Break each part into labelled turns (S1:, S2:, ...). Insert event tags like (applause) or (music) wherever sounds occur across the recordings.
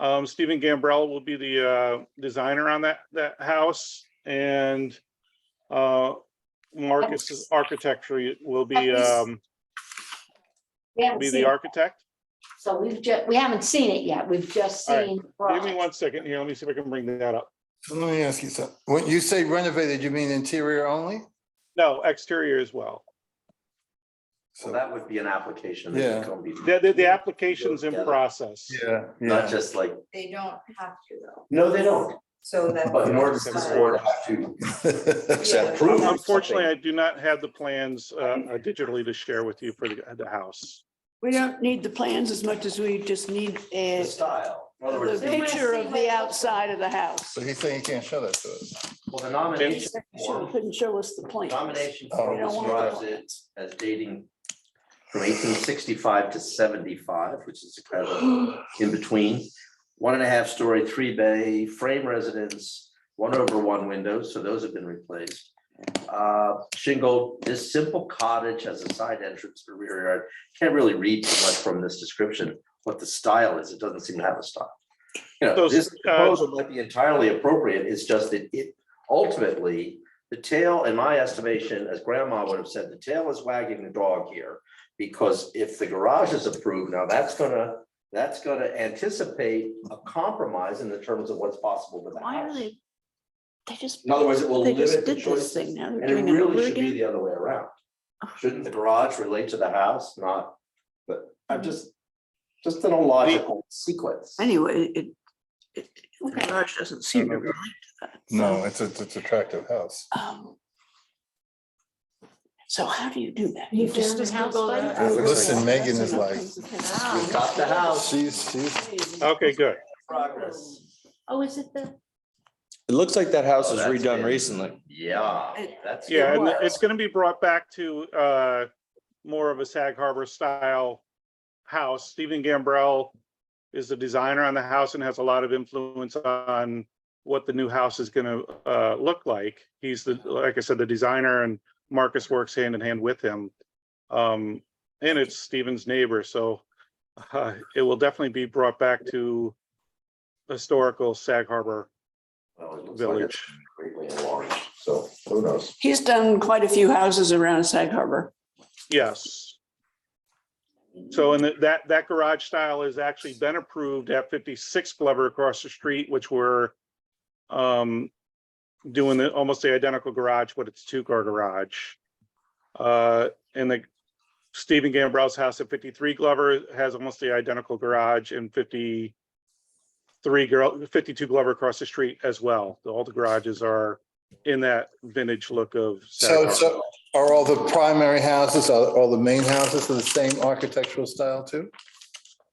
S1: Um, Stephen Gambrell will be the, uh, designer on that, that house and, uh, Marcus's architecture will be, um,
S2: We haven't
S1: be
S2: seen,
S1: the
S2: it.
S1: architect.
S2: so we've just, we haven't seen it yet. We've just
S1: All right.
S2: seen.
S1: Give me one second here. Let me see if I can bring that up.
S3: Let me ask you something. When you say renovated, you mean interior only?
S1: No, exterior as well.
S4: So that would be an application.
S3: Yeah.
S4: that would come
S1: The, the, the
S4: before-
S1: application's in
S4: Yeah.
S1: process.
S3: Yeah.
S4: Not just like,
S5: They don't have to though,
S4: no, they don't,
S5: so that.
S4: but in order for this
S1: Right.
S4: board to have to accept
S5: Yeah.
S4: proof. of
S1: Unfortunately, I
S4: something,
S1: do not have the plans, uh, digitally to share with you for the, the house.
S6: We don't need the plans as much as we just need
S4: The
S6: a,
S4: style, in other
S6: the
S4: words,
S6: picture of the outside of the house.
S3: (laughs) So he's saying he can't show that to us.
S4: well, the
S6: He
S4: nomination
S6: said you
S4: form,
S6: Couldn't show us the plans.
S4: nomination
S3: Oh.
S4: form
S6: We don't want
S4: describes
S6: the
S4: it
S6: plans.
S4: as dating from eighteen sixty-five to seventy-five, which is kind of
S6: (gasps)
S4: in between. One and a half story, three bay, frame residence, one over one windows, so those have been replaced. Uh, shingle, this simple cottage has a side entrance or rear yard. Can't really read too much from this description what the style is. It doesn't seem to have a style. You know,
S1: So,
S4: this
S1: uh,
S4: proposal might be entirely appropriate. It's just that it ultimately, the tail, in my estimation, as grandma would have said, the tail is wagging the dog here. Because if the garage is approved, now that's gonna, that's gonna anticipate a compromise in the terms of what's possible with the
S6: Why are
S4: house.
S6: they? They just,
S4: In other words, it will
S6: they just
S4: limit the
S6: did this
S4: choices.
S6: thing. Now they're
S4: And it
S6: doing it over
S4: really should be
S6: again. Oh.
S4: the other way around. Shouldn't the garage relate to the house, not, but
S6: Mm-hmm.
S4: I'm just, just in a logical sequence.
S6: Anyway, it, it, the
S5: Okay.
S6: garage doesn't seem to relate to that.
S3: No, it's, a- it's attractive house.
S6: Um, So how do you do that?
S2: You found the house
S6: Google
S2: button?
S6: it. Google it.
S3: Listen, Megan is
S6: That's enough
S3: like-
S6: things to think about.
S4: We got the house.
S3: She's, she's,
S1: Okay, good.
S4: Progress.
S2: Oh, is it the?
S7: It looks like that house
S4: Oh,
S7: was
S4: that's
S7: redone
S4: big.
S7: recently.
S4: Yeah,
S6: It-
S4: that's.
S1: Yeah, and
S6: was.
S1: it's gonna be brought back to uh more of a Sag Harbor style house. Stephen Gambrell is the designer on the house and has a lot of influence on what the new house is gonna uh look like. He's the, like I said, the designer and Marcus works hand in hand with him. Um, and it's Stephen's neighbor, so uh it will definitely be brought back to historical Sag Harbor
S4: Well, it looks like
S1: village.
S4: it's Greatly enlarged, so who knows?
S6: He's done quite a few houses around Sag Harbor.
S1: Yes. So and that, that garage style has actually been approved at fifty-six Glover across the street, which we're um, doing the, almost the identical garage, but it's two-car garage. Uh, and the Stephen Gambrell's house at fifty-three Glover has almost the identical garage and fifty-three girl, fifty-two Glover across the street as well. All the garages are in that vintage look of. Sag
S3: so,
S1: Harbor.
S3: so are all the primary houses, are all the main houses of the same architectural style too?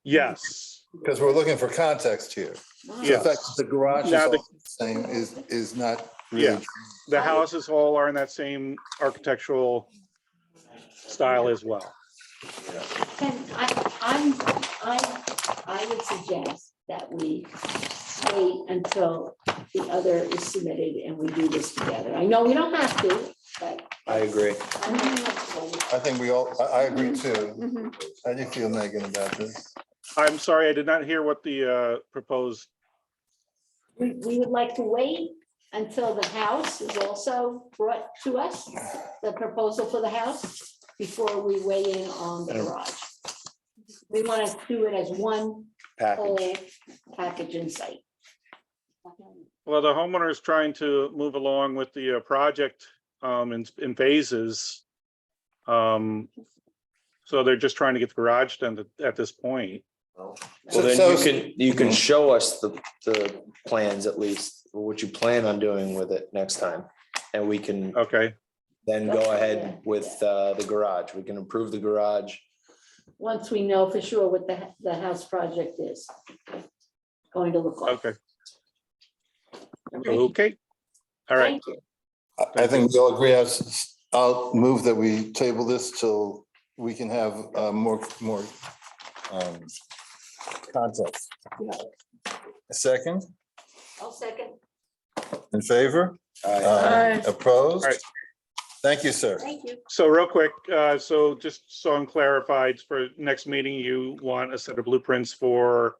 S1: Yes,
S3: Because we're looking for context here. The
S1: yes.
S3: fact that the garage is
S1: Now
S3: all
S1: the-
S3: the same is, is not
S1: Yeah.
S3: really,
S1: The houses all are in that same architectural style as well.
S2: Then I, I'm, I, I would suggest that we wait until the other is submitted and we do this together. I know we don't have to, but.
S7: I agree.
S2: I'm uncomfortable with-
S3: I think we all, I, I agree too.
S2: Mm-hmm.
S6: Mhm.
S3: How do you feel, Megan, about this?
S1: I'm sorry, I did not hear what the uh, proposed,
S2: We, we would like to wait until the house is also brought to us, the proposal for the house, before we weigh in on the garage. We want to do it as one whole package in sight.
S1: well, the homeowner is trying to move along with the uh, project um, in in phases. Um, So they're just trying to get the garage done at- at this point.
S7: Well,
S3: So- Mm-hmm.
S7: then you
S3: so-
S7: can, you can show us the, the plans at least, or what you plan on doing with it next time. And we can
S4: Oh,
S1: Okay,
S7: then go ahead with uh, the garage. We can improve the garage.
S2: once we know for sure what the, the house project is going to look like.
S1: okay, okay. All right,
S2: Thank you.
S3: I I think we all agree, I'll, s- s- I'll move that we table this till we can have uh, more, more um, context. A Second,
S2: I'll second.
S3: in favor?
S6: Aye.
S3: Opposed?
S1: All right.
S3: Thank you, sir.
S2: Thank you.
S1: so real quick, uh, so just so I'm clarified, for next meeting, you want a set of blueprints for